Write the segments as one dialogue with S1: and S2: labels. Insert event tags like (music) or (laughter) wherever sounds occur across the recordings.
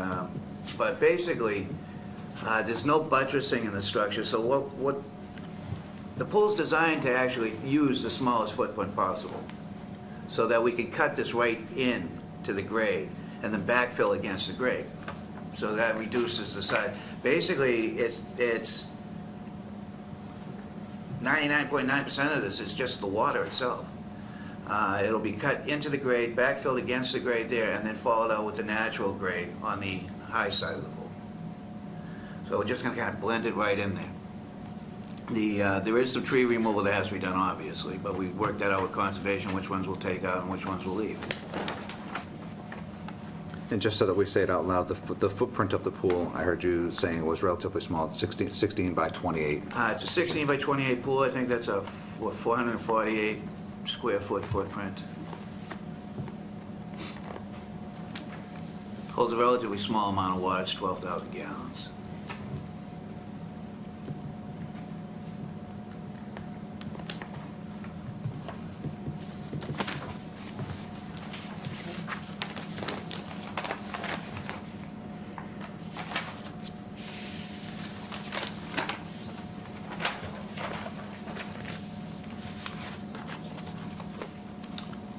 S1: Um, But basically, uh, there's no buttressing in the structure, so what, what, the pool's designed to actually use the smallest footprint possible, so that we can cut this right in to the grade, and then backfill against the grade. So that reduces the size. Basically, it's, it's, 99.9% of this is just the water itself. Uh, It'll be cut into the grade, backfilled against the grade there, and then followed out with the natural grade on the high side of the pool. So we're just gonna kind of blend it right in there. The, uh, there is some tree removal that has to be done, obviously, but we worked that out with conservation, which ones we'll take out and which ones we'll leave.
S2: And just so that we say it out loud, the foot- the footprint of the pool, I heard you saying it was relatively small, it's 16 16 by 28.
S1: Uh, It's a 16 by 28 pool, I think that's a, what, 448 square foot footprint. Holds a relatively small amount of water, it's 12,000 gallons.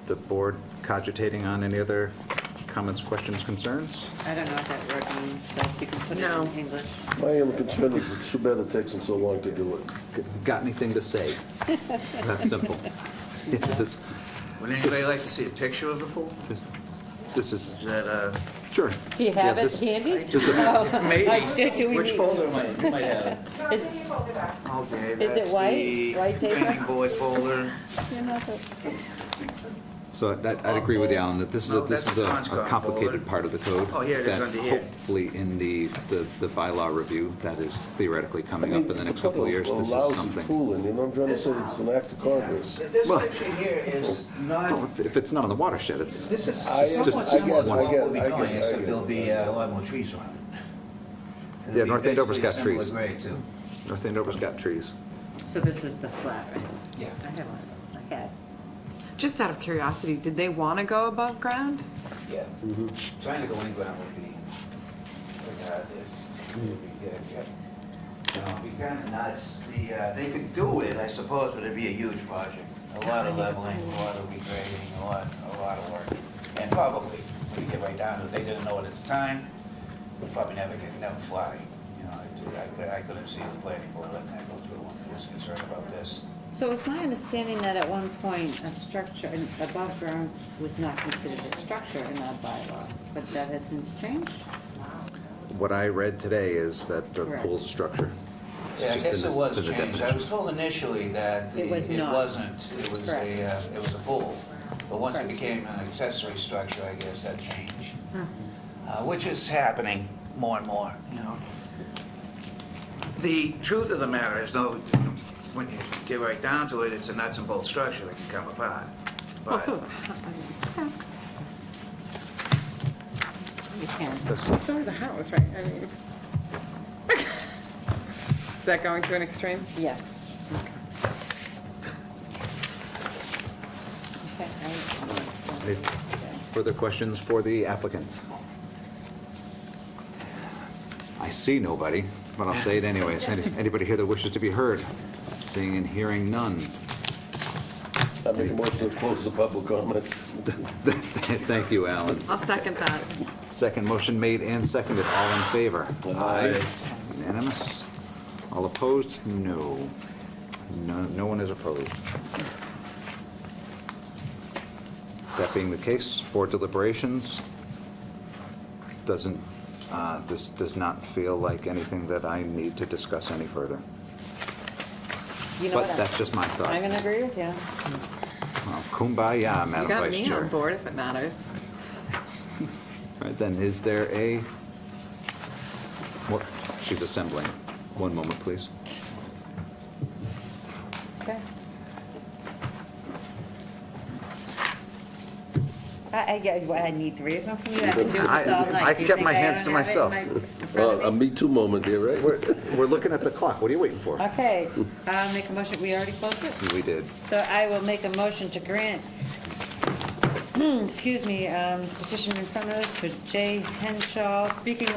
S2: The board cogitating on any other comments, questions, concerns?
S3: I don't know what that word means, so if you can put it
S4: No.
S3: in English.
S5: My only concern is it's too bad it takes them so long to do it.
S2: Got anything to
S3: (laughs)
S2: say? That's simple. (laughs) Yeah, This
S1: Would anybody like to see a picture of the pool?
S2: this- this is,
S1: Is that,
S3: (laughs)
S1: uh?
S2: sure.
S3: Do you have
S2: Yeah,
S3: it Oh.
S2: this-
S3: handy?
S2: this is-
S3: do- do we
S1: Which
S3: need-
S1: folder am I, am I
S3: (laughs)
S1: having?
S3: Is-
S1: Okay,
S3: Is it
S1: that's
S3: white?
S1: the
S3: White paper?
S1: planning board folder.
S2: So I'd- I'd agree with you, Alan, that this is, a-
S1: No,
S2: this
S1: that's
S2: is a
S1: Conscom
S2: a complicated
S1: folder.
S2: part of the code.
S1: Oh, here it is under here.
S2: That hopefully in the, the the bylaw review, that is theoretically
S5: I
S2: coming
S5: mean,
S2: up in the next couple of years, this is
S5: A lousy
S2: something.
S5: pool, and you know, I'm trying to say it's an act of Congress.
S1: This
S2: Well-
S1: picture here is
S2: Well,
S1: not,
S2: if- If it's not on the watershed, it's,
S1: this is
S5: I-
S1: somewhat
S2: I get-
S1: similar to
S2: I
S1: what
S5: get-
S1: we'll be
S5: I get-
S1: doing,
S5: I
S1: except
S5: get-
S1: there'll be uh, a lot more trees around it. It'll
S2: Yeah,
S1: be
S2: North Andover's got
S1: basically
S2: trees.
S1: Similar grade, too.
S2: North Andover's got trees.
S3: So this is the slab, right?
S1: Yeah.
S3: I have one, I had.
S4: Just out of curiosity, did they want to go above ground?
S1: Yeah. Trying to go in ground would be, would, uh, it would be good, yeah. You know, it'd be kind of nuts. The, uh, they could do it, I suppose, but it'd be a huge project. A lot of leveling, a lot of regrading, a lot, a lot of work. And probably, when you get right down to it, they didn't know it at the time, would probably never get, never fly. You know, I did- I could, I couldn't see the planning board letting that go through when they was concerned about this.
S3: So it was my understanding that at one point, a structure an above ground was not considered a structure in our bylaw, but that has since changed?
S2: What I read today is that the
S3: Correct.
S2: pool's a structure.
S1: Yeah, I
S2: Just
S1: guess
S2: in
S1: it
S2: the-
S1: was
S2: in the
S1: changed. I
S2: definition.
S1: was told initially that the-
S3: It was
S1: it
S3: not.
S1: wasn't. It was a,
S3: Correct.
S1: uh, it was a pool. But once it
S3: Correct. Hmm.
S1: became an accessory structure, I guess that changed. Uh, Which is happening more and more, you know. The truth of the matter is, no, when you get right down to it, it's a nuts and bolts structure that can come apart.
S3: Oh,
S4: Well,
S1: But
S4: so is a house. I mean,
S3: You can.
S4: So is a house, right? I mean. (laughs) Is that going to an extreme?
S3: Yes. Okay.
S2: Any Further questions for the applicant? I see nobody, but I'll say it anyways. Any- Anybody here that wishes to be heard? Seeing and hearing none. (laughs)
S5: I make a motion to close the public comments.
S2: Thank you, Alan.
S4: I'll second that.
S2: Second motion made and seconded. All in favor? Aye. Unanimous? All opposed? No. No, no one is opposed. That being the case, board deliberations doesn't, uh, this does not feel like anything that I need to discuss any further.
S3: You know what?
S2: But that's just my
S3: I'm
S2: thought.
S3: gonna agree with you.
S2: Well, Kumbaya,
S4: You
S2: Madam
S4: got
S2: Vice Chair.
S4: me on board if it matters.
S2: All right, then, is there a, what, she's assembling. One moment, please.
S3: Okay. I, I, get what I need three of them from you, I can do this all
S2: I-
S3: night.
S2: I
S3: Do you
S2: kept
S3: think
S2: my hands
S3: don't
S2: to
S3: have
S2: myself. um,
S3: it in my- in front of
S5: Well, a
S3: me?
S5: Uh, Me Too moment here, right?
S2: We're, we're looking at the clock, what are you waiting for?
S3: Okay, I'll make a motion, we already closed it?
S2: We did.
S3: (clears throat) So I will make a motion to grant excuse me, um, petition in front of us for Jay Henshaw, speaking